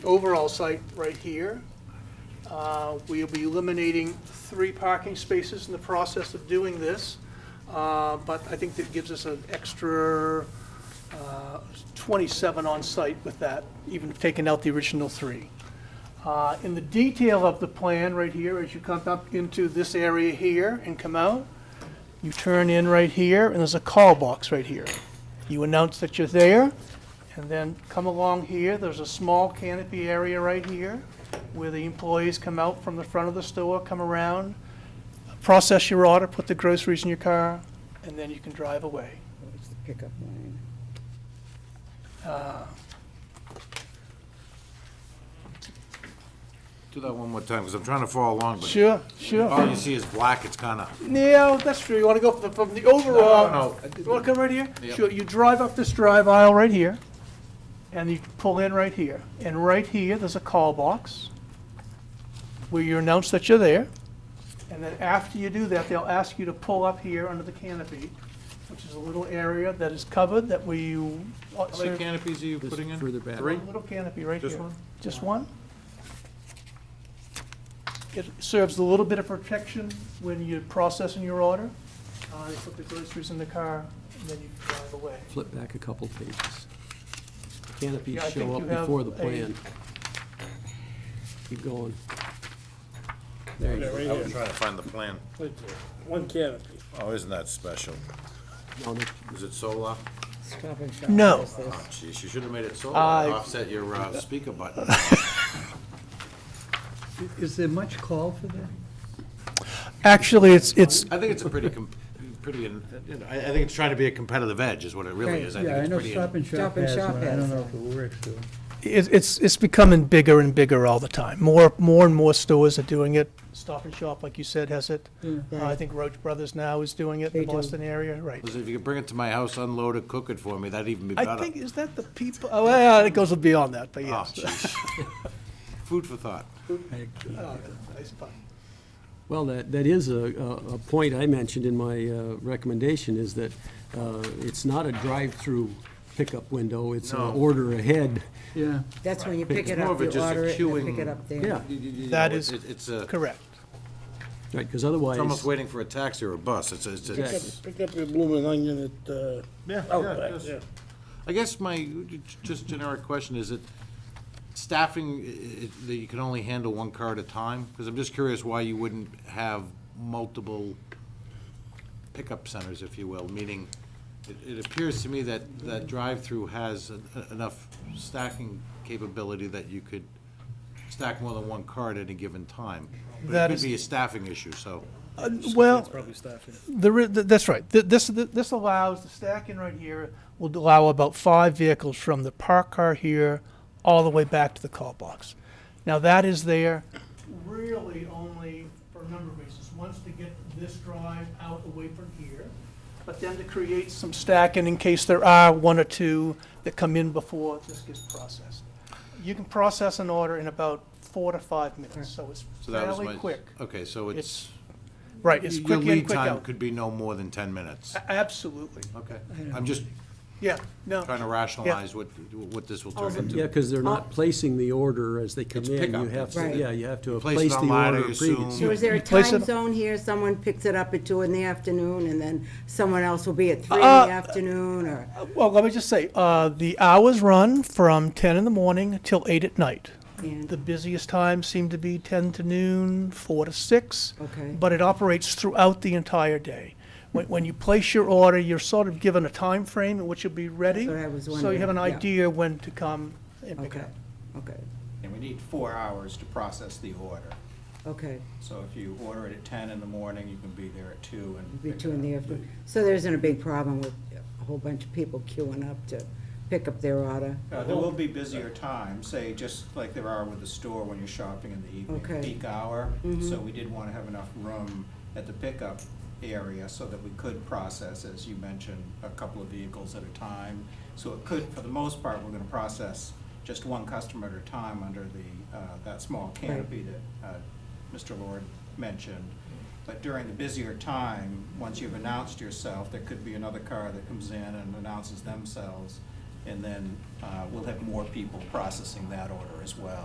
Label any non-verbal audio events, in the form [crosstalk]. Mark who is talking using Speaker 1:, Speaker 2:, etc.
Speaker 1: overall site right here. Uh, We'll be eliminating three parking spaces in the process of doing this, Uh, but I think that gives us an extra uh, 27 on site with that, even taking out the original three. Uh, In the detail of the plan right here, as you come up into this area here and come out, you turn in right here, and there's a call box right here. You announce that you're there, and then come along here, there's a small canopy area right here where the employees come out from the front of the store, come around, process your order, put the groceries in your car, and then you can drive away.
Speaker 2: It's the pickup line.
Speaker 3: Do that one more time, because I'm trying to follow along, but
Speaker 1: Sure, sure.
Speaker 3: all you see is black, it's kind of,
Speaker 1: Yeah, that's true. You want to go from the, from the overall.
Speaker 3: No, no, no.
Speaker 1: You want to come right here?
Speaker 3: Yep.
Speaker 1: Sure, you drive up this drive aisle right here, and you pull in right here. And right here, there's a call box where you announce that you're there. And then after you do that, they'll ask you to pull up here under the canopy, which is a little area that is covered that we. uh,
Speaker 3: how many canopies are you putting in?
Speaker 4: further back.
Speaker 3: Three?
Speaker 1: Little canopy right here.
Speaker 3: Just one?
Speaker 1: Just one? It serves a little bit of protection when you're processing your order. Uh, you put the groceries in the car, and then you drive away.
Speaker 4: Flip back a couple pages. Canopies
Speaker 1: Yeah, I think
Speaker 4: show
Speaker 1: you
Speaker 4: up
Speaker 1: have
Speaker 4: before the
Speaker 1: a-
Speaker 4: plan. Keep going. There you
Speaker 5: Yeah,
Speaker 4: go.
Speaker 3: I
Speaker 5: right
Speaker 3: was
Speaker 5: here.
Speaker 3: trying to find the plan.
Speaker 5: Right there. One canopy.
Speaker 3: Oh, isn't that special?
Speaker 4: No, that-
Speaker 3: Is it solar?
Speaker 2: Stop and shop.
Speaker 1: No.
Speaker 2: does this.
Speaker 3: Oh, Jeez, you should have made it solar,
Speaker 1: I-
Speaker 3: offset your uh, speaker button.
Speaker 6: Is there much call for that?
Speaker 1: Actually, it's, it's,
Speaker 3: I think it's a pretty, com- pretty, in- you know, I, I think it's trying to be a competitive edge is what it really is. I think
Speaker 6: Yeah, I
Speaker 3: it's
Speaker 6: know
Speaker 3: pretty,
Speaker 6: Stop
Speaker 3: in-
Speaker 6: and Shop
Speaker 2: Stop and
Speaker 6: has
Speaker 2: Shop
Speaker 6: one, I
Speaker 2: has
Speaker 6: don't know if it works though.
Speaker 1: it's, it's becoming bigger and bigger all the time. More, more and more stores are doing it. Stop and Shop, like you said, has it. Uh, I think Roach Brothers now is doing it in
Speaker 2: They
Speaker 1: the
Speaker 2: do.
Speaker 1: Boston area, right.
Speaker 3: listen, if you could bring it to my house, unload it, cook it for me, that'd even be better.
Speaker 1: I think, is that the people, oh, well, it goes beyond that, but
Speaker 3: Oh,
Speaker 1: yes.
Speaker 3: jeez. Food for thought.
Speaker 1: [laughs] Oh, nice pun.
Speaker 4: Well, that, that is a, a a point I mentioned in my uh, recommendation, is that uh, it's not a drive-through pickup window, it's an
Speaker 3: No.
Speaker 4: order ahead.
Speaker 6: Yeah,
Speaker 2: That's when you pick
Speaker 3: It's
Speaker 2: it
Speaker 3: more
Speaker 2: up,
Speaker 3: of a
Speaker 2: you
Speaker 3: just a
Speaker 2: order it, you pick
Speaker 3: queuing-
Speaker 2: it up there.
Speaker 4: Yeah,
Speaker 3: You- you- you
Speaker 1: That
Speaker 3: know,
Speaker 1: is
Speaker 3: it- It's a,
Speaker 1: Correct.
Speaker 4: right, because otherwise.
Speaker 3: it's almost waiting for a taxi or a bus, it's, a- it's, a-
Speaker 4: Exactly.
Speaker 5: Pick up your blooming onion at, uh,
Speaker 3: Yeah, yeah,
Speaker 5: Outback,
Speaker 3: yes.
Speaker 5: yeah.
Speaker 3: I guess my just generic question is that staffing, i- i- that you can only handle one car at a time? Because I'm just curious why you wouldn't have multiple pickup centers, if you will, meaning it, it appears to me that, that drive-through has en- enough stacking capability that you could stack more than one car at any given time.
Speaker 1: That
Speaker 3: But it
Speaker 1: is-
Speaker 3: could be a staffing issue, so.
Speaker 1: Uh, Well,
Speaker 5: Probably staffing.
Speaker 1: There is, th- that's right. Th- This, th- this allows, the stacking right here will allow about five vehicles from the park car here all the way back to the call box. Now, that is there really only for a number of reasons. Once to get this drive out away from here, but then to create some stacking in case there are one or two that come in before this gets processed. You can process an order in about four to five minutes, so it's
Speaker 3: so that was
Speaker 1: fairly
Speaker 3: my-
Speaker 1: quick.
Speaker 3: Okay, so it's.
Speaker 1: It's, right, it's
Speaker 3: your
Speaker 1: quick in,
Speaker 3: lead
Speaker 1: quick
Speaker 3: time
Speaker 1: out. Ah.
Speaker 3: Could be no more than ten minutes.
Speaker 1: A- Absolutely.
Speaker 3: Okay, I'm just
Speaker 1: Yeah, no.
Speaker 3: trying to rationalize what, what this will turn into.
Speaker 4: Yeah, because they're not placing the order as they come
Speaker 3: It's
Speaker 4: in.
Speaker 3: pickup.
Speaker 4: You have
Speaker 2: Right.
Speaker 4: to, yeah, you have to
Speaker 3: Place it
Speaker 4: place the
Speaker 3: online, I
Speaker 4: order
Speaker 3: assume.
Speaker 2: So
Speaker 4: previously.
Speaker 2: is there a
Speaker 1: You place
Speaker 2: time
Speaker 1: it-
Speaker 2: zone here? Someone picks it up at two in the afternoon, and then someone else will be at three in
Speaker 1: Uh,
Speaker 2: the afternoon, or?
Speaker 1: Well, let me just say, uh, the hours run from ten in the morning till eight at night.
Speaker 2: And-
Speaker 1: The busiest times seem to be ten to noon, four to six.
Speaker 2: Okay.
Speaker 1: But it operates throughout the entire day. When, when you place your order, you're sort of given a time frame in which you'll be ready.
Speaker 2: That's what I was
Speaker 1: So you have an
Speaker 2: wondering, yeah.
Speaker 1: idea when to come and pick it
Speaker 2: Okay,
Speaker 1: up.
Speaker 2: okay,
Speaker 7: And we need four hours to process the order.
Speaker 2: okay.
Speaker 7: So if you order it at ten in the morning, you can be there at two and.
Speaker 2: Be
Speaker 7: pick it
Speaker 2: two in
Speaker 7: up.
Speaker 2: the afternoon. So there isn't a big problem with a whole bunch of people queuing up to pick up their order?
Speaker 7: Uh, There will be busier times, say, just like there are with the store when you're shopping in the evening.
Speaker 2: Okay.
Speaker 7: Peak hour, so we did want to have enough room at the pickup area so that we could process, as you mentioned, a couple of vehicles at a time. So it could, for the most part, we're going to process just one customer at a time under the, uh, that small canopy that uh, Mr. Lord mentioned. But during the busier time, once you've announced yourself, there could be another car that comes in and announces themselves And then uh, we'll have more people processing that order as well.